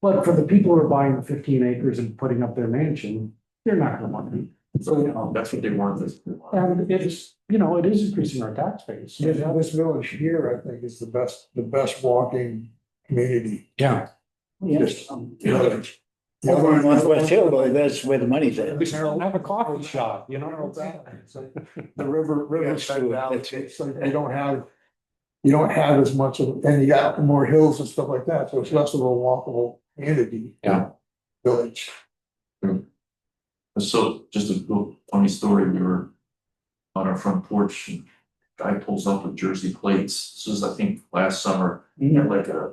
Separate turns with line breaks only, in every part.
But for the people who are buying the fifteen acres and putting up their mansion, they're not gonna want it. So,
That's what they want this. to
and it's, you know, it is increasing our tax base.
This, this village here, I think, is the best, the best walking community.
Yeah. Yes.
be. Yeah.
The
Over in
other-
Northwest Hillbilly, that's where the money's at.
We should have a coffee shop, you know?
The river, river
That's
side
true.
valley,
That's it.
so you don't have, you don't have as much of, and you got more hills and stuff like that, so it's less of a walkable community.
Yeah.
Village.
So just a little funny story, we were on our front porch and guy pulls up with jersey plates. This was, I think, last summer, he had like a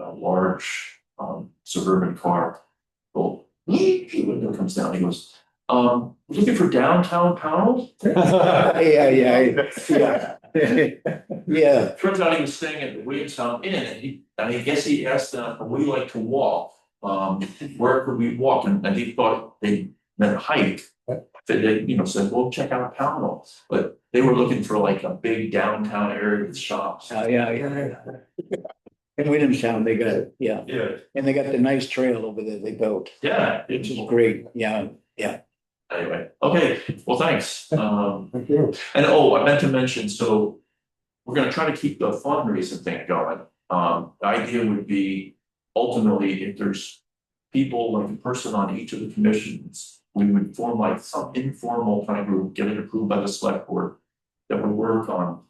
a large um suburban car. Well, window comes down, he goes, um, looking for downtown Powell?
Yeah, yeah, yeah, yeah. Yeah,
Turns out he was staying at the Williamstown Inn, and he, and I guess he asked them, "Would we like to walk? Um, where could we walk? And, and he thought they meant hike. They, they, you know, said, well, check out Pownell, but they were looking for like a big downtown area with shops.
Oh, yeah, yeah. In Williamstown, they got, it. yeah,
Yeah.
and they got the nice trail over there they built,
Yeah,
which
it's,
is great, yeah.
anyway, okay, well, thanks, um.
Thank you.
And oh, I meant to mention, so we're gonna try to keep the fundraising thing going. Um, the idea would be ultimately if there's people, like a person on each of the commissions, we would form like some informal kind of group, get it approved by the select board that would work on,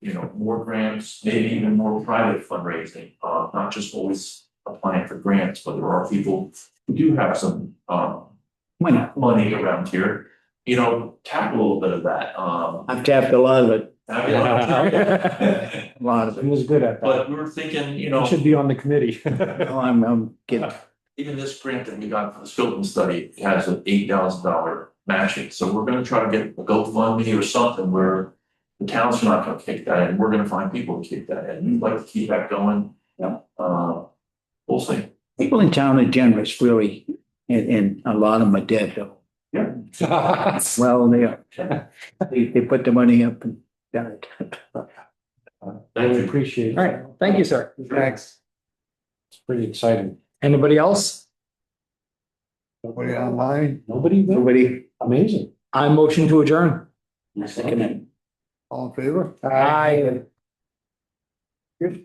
you know, more grants, maybe even more private fundraising, uh, not just always applying for grants, but there are people who do have some, um,
Why not?
money around here, you know, tap a little bit of that, um.
I've tapped a lot of it,
I mean,
a lot of
He
it.
was good at that.
But we were thinking, you
He
know,
Should be on the committee.
Oh, I'm, I'm kidding.
even this grant that we got for the Skilton study has an eight thousand dollar matching, so we're gonna try to get a GoFundMe or something where. The town's not gonna kick that in, we're gonna find people to kick that in, we'd like to keep that going.
Yeah.
Uh, we'll see.
People in town are generous, really, and, and a lot of them are dead, though. Well, they are. They, they put the money up and died.
I
Thank you.
appreciate it.
All right, thank you, sir.
Thanks. It's pretty exciting.
Anybody else?
Put it online,
Nobody there?
Nobody,
Amazing.
I motion to adjourn.
second it.
all in favor?
Aye.